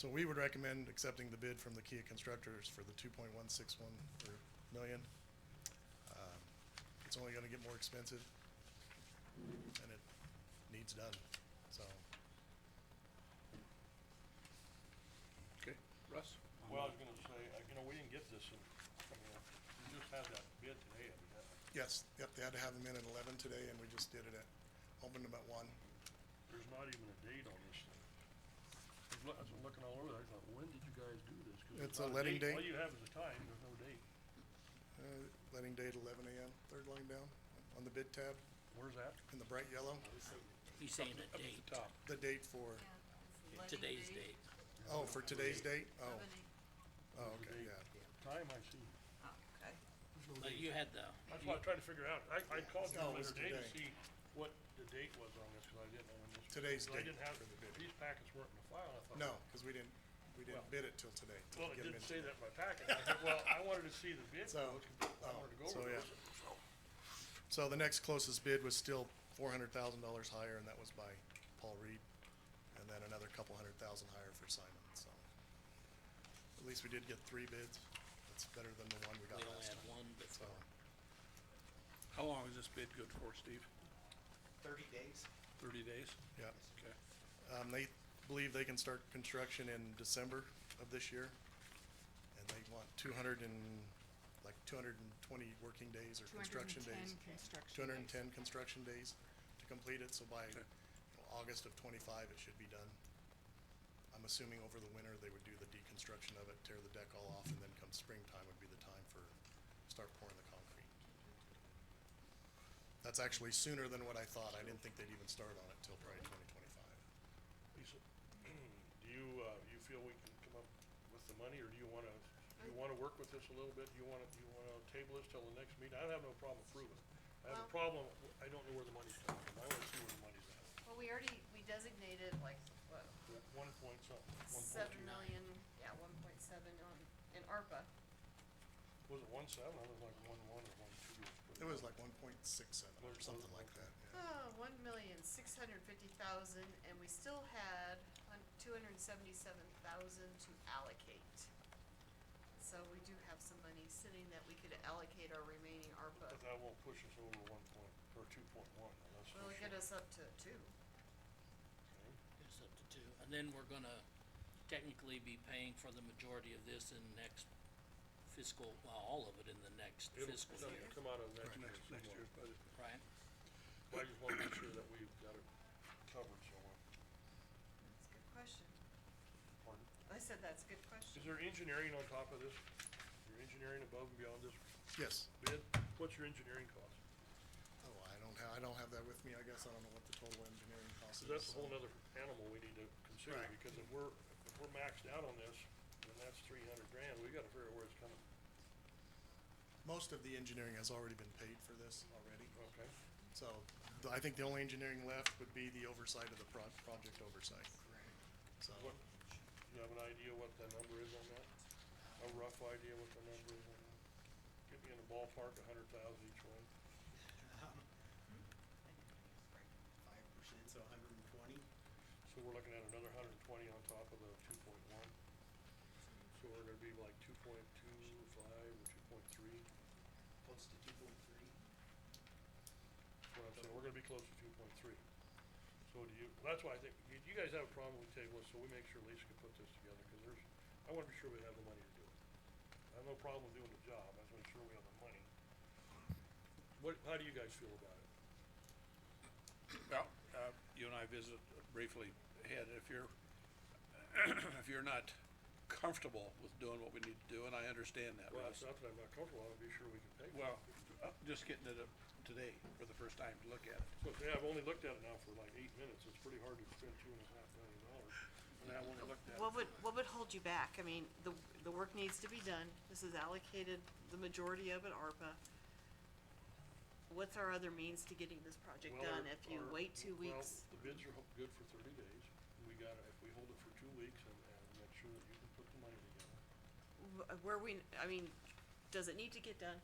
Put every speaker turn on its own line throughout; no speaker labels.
So we would recommend accepting the bid from the Kia Constructors for the two point one six one million. Um, It's only gonna get more expensive, and it needs done, so.
Okay, Russ?
Well, I was gonna say, uh, you know, we didn't get this, in- I mean, uh, we just had that bid today, evidently.
Yes, yep, they had to have them in at eleven today, and we just did it at, opened them at one.
There's not even a date on this thing. I was loo- I was looking all over, there, I thought, when did you guys do this? 'Cause there's
It's a
not
letting date.
All you have is a time, there's no date.
Uh, Letting date eleven AM, third line down, on the bid tab,
Where's that?
in the bright yellow,
He's saying
Up
a
at
date,
the top.
the date for,
Yeah, it's the letting
today's date.
oh, for today's date?
of
Oh,
an e-
oh,
There's a
okay,
date.
yeah.
Time I see.
oh, okay.
There's no
But
date.
you had the,
That's
you-
why I tried to figure out, I, I called you
No, it was
later today to
today.
see what the date was on this, cause I didn't know when this.
Today's
'cause I
date
didn't have,
for the bid.
these packets weren't in the file, I thought.
No, because we didn't, we
Well-
didn't bid it till today. to
Well, it
get 'em
didn't
in
say
today.
that in my packet, I said, well, I wanted to see the bid,
So,
so I
oh,
wanted to go
so
over
yeah.
those, so.
So the next closest bid was still four hundred thousand dollars higher, and that was by Paul Reed, and then another couple hundred thousand higher for Simon, so. At least we did get three bids, that's better than the one we
we
got
only
last
had
time,
one, but
so.
How long is this bid good for, Steve?
thirty days.
Thirty days?
Yeah,
Okay.
um, they believe they can start construction in December of this year, and they want two hundred and, like, two hundred and twenty working days or construction days.
210 construction
two hundred and
days.
ten construction days to complete it, so by you know, August of twenty-five, it should be done. I'm assuming over the winter, they would do the deconstruction of it, tear the deck all off, and then come springtime would be the time for, start pouring the concrete. That's actually sooner than what I thought, I didn't think they'd even start on it till probably twenty twenty-five.
Lisa, do you, uh, you feel we can come up with the money, or do you wanna, do you wanna work with this a little bit? Do you wanna, do you wanna table this till the next meeting? I have no problem approving. it. I have a
Well-
problem, w- I don't know where the money's coming from. I wanna see where the money's at.
Well, we already, we designated like, what,
One point something, one point
seven
two.
million, yeah, one point seven on, in ARPA.
Was it one seven? I was like one one or one two.
It was like one point six seven or something like that, yeah.
Oh, one million, six hundred fifty thousand, and we still had hun- two hundred and seventy-seven thousand to allocate. So we do have some money sitting that we could allocate our remaining ARPA.
But that won't push us over one point, or two point one, unless.
Will it get us up to two?
it's up to two, and then we're gonna technically be paying for the majority of this in next fiscal, well, all of it in the next fiscal year,
Come out of next year's.
Next, next year's budget.
right?
I just wanna make sure that we've got it covered somewhere.
That's a good question.
Pardon?
I said that's a good question.
Is there engineering on top of this? Your engineering above and beyond this
Yes,
bid? What's your engineering cost?
oh, I don't have, I don't have that with me, I guess, I don't know what the total engineering cost is.
'Cause that's a
so-
whole nother animal we need to consider,
Right.
because if we're, if we're maxed out on this, then that's three hundred grand, we gotta figure out where it's coming.
Most of the engineering has already been paid for this already.
Okay.
So, th- I think the only engineering left would be the oversight of the pro- project oversight. So,
What, you have an idea what the number is on that? A rough idea what the number is on that? Get me in the ballpark, a hundred thousand each one.
Um, Five percent, so hundred and twenty.
So we're looking at another hundred and twenty on top of the two point one. So we're gonna be like two point two five or two point three.
Close to two point three.
what I'm saying, we're gonna be close to two point three. So do you, that's why I think, you, you guys have a problem with table, so we make sure Lisa can put this together, cause there's, I wanna be sure we have the money to do it. I have no problem doing the job, I just wanna make sure we have the money. What, how do you guys feel about it?
Well, uh, you and I visited briefly ahead, if you're, if you're not comfortable with doing what we need to do, and I understand that,
Well, it's
Russ.
not that I'm not comfortable, I wanna be sure we can pay for it.
Well, uh, just getting it up today for the first time to look at it.
But, yeah, I've only looked at it now for like eight minutes, it's pretty hard to spend two and a half million dollars, and I only looked at it.
What would, what would hold you back? I mean, the, the work needs to be done. This is allocated, the majority of it ARPA. What's our other means to getting this project
Well,
done
our-
if you
our-
wait two weeks?
Well, the bids are ho- good for thirty days, we gotta, if we hold it for two weeks and, and make sure that you can put the money together.
Wh- Where we, I mean, does it need to get done?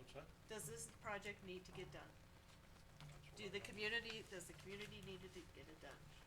What's that?
Does this project need to get done?
That's what I
Do the
got.
community, does the community need to d- get it done?